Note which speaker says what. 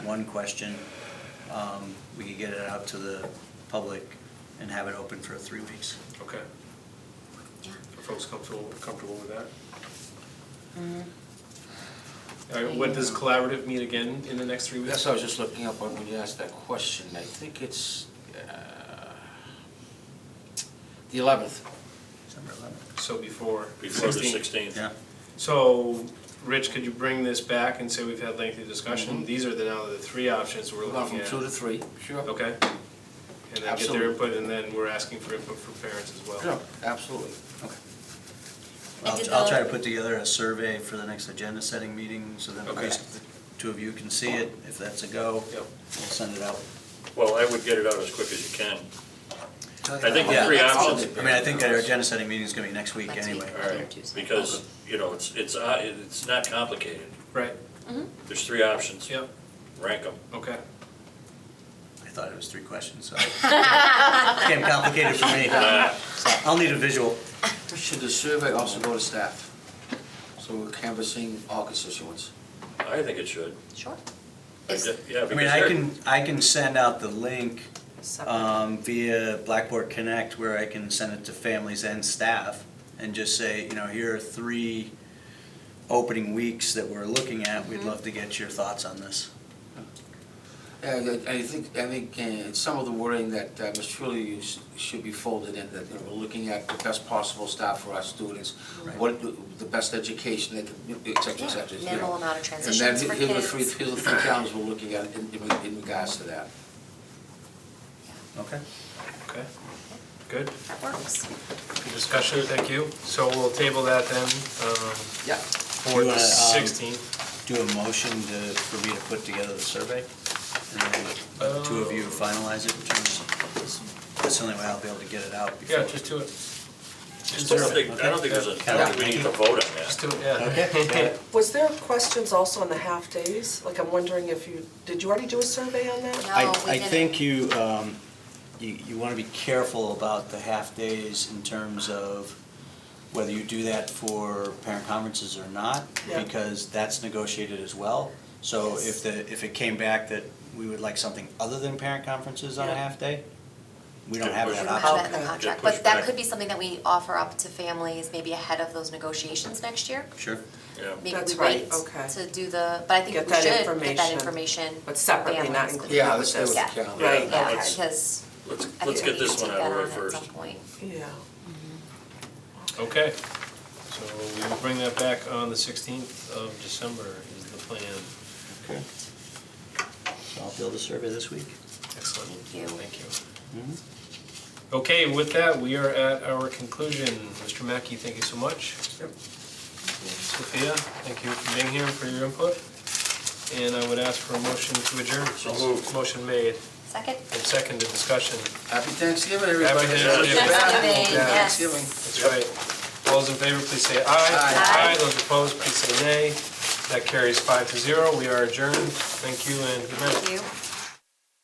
Speaker 1: one question, um, we could get it out to the public and have it open for three weeks.
Speaker 2: Okay. Are folks comfortable, comfortable with that? All right, when does collaborative meet again in the next three
Speaker 3: Yes,
Speaker 2: weeks?
Speaker 3: I was just looking up on when you asked that question. I think it's uh, the 11th.
Speaker 1: December 11th.
Speaker 2: So before.
Speaker 4: Before the
Speaker 2: 16.
Speaker 4: sixteenth.
Speaker 1: Yeah,
Speaker 2: So, Rich, could you bring this back and say we've had lengthy discussion? These are the, now the three options we're
Speaker 3: We'll go
Speaker 2: looking
Speaker 3: Mm-hmm. from
Speaker 2: at.
Speaker 3: 2 to 3. Sure.
Speaker 2: Okay? And then get their
Speaker 3: Absolutely.
Speaker 2: input, and then we're asking for input from parents as well.
Speaker 3: Sure, absolutely.
Speaker 1: okay.
Speaker 5: I did
Speaker 1: I'll, I'll try to
Speaker 5: the-
Speaker 1: put together a survey for the next agenda setting meeting, so then at
Speaker 2: Okay.
Speaker 1: least the two of you can see it. If that's a go,
Speaker 2: Yep.
Speaker 1: we'll send it out.
Speaker 4: Well, I would get it out as quick as you can. I think
Speaker 1: Yeah.
Speaker 4: the three
Speaker 3: That's all
Speaker 4: options,
Speaker 3: it is.
Speaker 1: I mean, I think our agenda setting meeting's gonna be next week
Speaker 5: Next week.
Speaker 1: anyway.
Speaker 4: all right,
Speaker 5: Tuesday.
Speaker 4: because, you know, it's, it's, uh, it's not complicated.
Speaker 2: Right,
Speaker 4: There's three options.
Speaker 2: yep,
Speaker 4: Rank them.
Speaker 2: okay.
Speaker 1: I thought it was three questions, so. Became complicated for me. I'll need a visual.
Speaker 3: Should the survey also go to staff? So we're canvassing all constituents.
Speaker 4: I think it should.
Speaker 5: Sure.
Speaker 4: I
Speaker 5: It's
Speaker 4: d- Yeah,
Speaker 1: I mean,
Speaker 4: because
Speaker 1: I
Speaker 4: they're-
Speaker 1: can, I can send out the link
Speaker 5: separate.
Speaker 1: um, via Blackboard Connect where I can send it to families and staff and just say, you know, here are three opening weeks that we're looking at.
Speaker 4: Mm-hmm.
Speaker 1: We'd love to get your thoughts on this.
Speaker 3: And I I think, I think uh, some of the wording that uh, Ms. Trulli used should be folded in, that you know, we're looking at the best possible staff for our students, what, the best education, et cetera, et
Speaker 5: Yeah,
Speaker 3: cetera. you know.
Speaker 5: minimal amount of
Speaker 3: And then
Speaker 5: transitions for
Speaker 3: here are the three,
Speaker 5: kids.
Speaker 3: here are the three towns we're looking at in, in- in regards to that.
Speaker 1: Okay?
Speaker 2: Okay, good.
Speaker 5: That works.
Speaker 2: Good discussion, thank you. So we'll table that then, um,
Speaker 3: Yeah.
Speaker 2: for
Speaker 1: You
Speaker 3: uh,
Speaker 2: the
Speaker 1: wanna, um,
Speaker 2: sixteenth.
Speaker 1: Do a motion to, for me to put together the survey? And then
Speaker 4: Uh,
Speaker 1: let the two of you finalize it in terms of, that's the only way I'll be able to get it out before.
Speaker 2: Yeah, just do it.
Speaker 4: I don't think, I don't think there's a, I don't think we need to vote on
Speaker 2: Just
Speaker 4: that.
Speaker 2: do it, yeah.
Speaker 1: Okay.
Speaker 6: Was there questions also on the half-days? Like, I'm wondering if you, did you already do a survey on that?
Speaker 1: I,
Speaker 5: No, we
Speaker 1: I
Speaker 5: didn't.
Speaker 1: think you, um, you, you wanna be careful about the half-days in terms of whether you do that for parent conferences or not,
Speaker 6: Yeah.
Speaker 1: because that's negotiated as well. So
Speaker 5: Yes.
Speaker 1: if the, if it came back that we would like something other than parent conferences on a
Speaker 6: Yeah.
Speaker 1: half-day, we don't
Speaker 4: Yeah,
Speaker 1: have
Speaker 4: push
Speaker 1: that
Speaker 5: We
Speaker 4: it.
Speaker 5: don't have that
Speaker 1: option.
Speaker 5: in the
Speaker 6: Okay.
Speaker 5: contract,
Speaker 4: Yeah, push
Speaker 5: but that
Speaker 4: back.
Speaker 5: could be something that we offer up to families maybe ahead of those negotiations next year.
Speaker 1: Sure.
Speaker 4: Yeah.
Speaker 5: Maybe
Speaker 6: That's
Speaker 5: we
Speaker 6: right,
Speaker 5: wait
Speaker 6: okay.
Speaker 5: to do the, but I think
Speaker 6: Get
Speaker 5: we
Speaker 6: that
Speaker 5: should get that
Speaker 6: information,
Speaker 5: information.
Speaker 6: but separately, not
Speaker 5: families.
Speaker 6: included.
Speaker 3: Yeah, let's do it with the
Speaker 5: Yeah.
Speaker 3: calendar.
Speaker 4: Right.
Speaker 6: Right,
Speaker 5: Yeah,
Speaker 4: Let's-
Speaker 5: because
Speaker 4: Let's, let's
Speaker 5: I think we
Speaker 4: get
Speaker 5: need
Speaker 4: this
Speaker 5: to
Speaker 4: one
Speaker 5: get
Speaker 4: out of the
Speaker 5: on
Speaker 4: way
Speaker 5: at some
Speaker 4: first.
Speaker 5: point.
Speaker 6: Yeah.
Speaker 2: Okay, so we will bring that back on the 16th of December is the plan.
Speaker 1: Okay. So I'll build a survey this week.
Speaker 2: Excellent.
Speaker 5: Thank you.
Speaker 2: Thank you.
Speaker 1: Mm-hmm.
Speaker 2: Okay, with that, we are at our conclusion. Mr. Mackey, thank you so much. Sophia, thank you for being here and for your input. And I would ask for a motion to adjourn.
Speaker 4: So moved.
Speaker 2: Motion made
Speaker 5: Second?
Speaker 2: and seconded, discussion.
Speaker 3: Happy Thanksgiving, everybody.
Speaker 2: Happy Thanksgiving.
Speaker 5: Thanksgiving,
Speaker 3: Yeah,
Speaker 5: yes.
Speaker 3: Thanksgiving.
Speaker 2: That's right. All those in favor, please say aye. Aye. Those opposed, please say nay. That carries five to zero. We are adjourned. Thank you and good night.
Speaker 5: Thank you.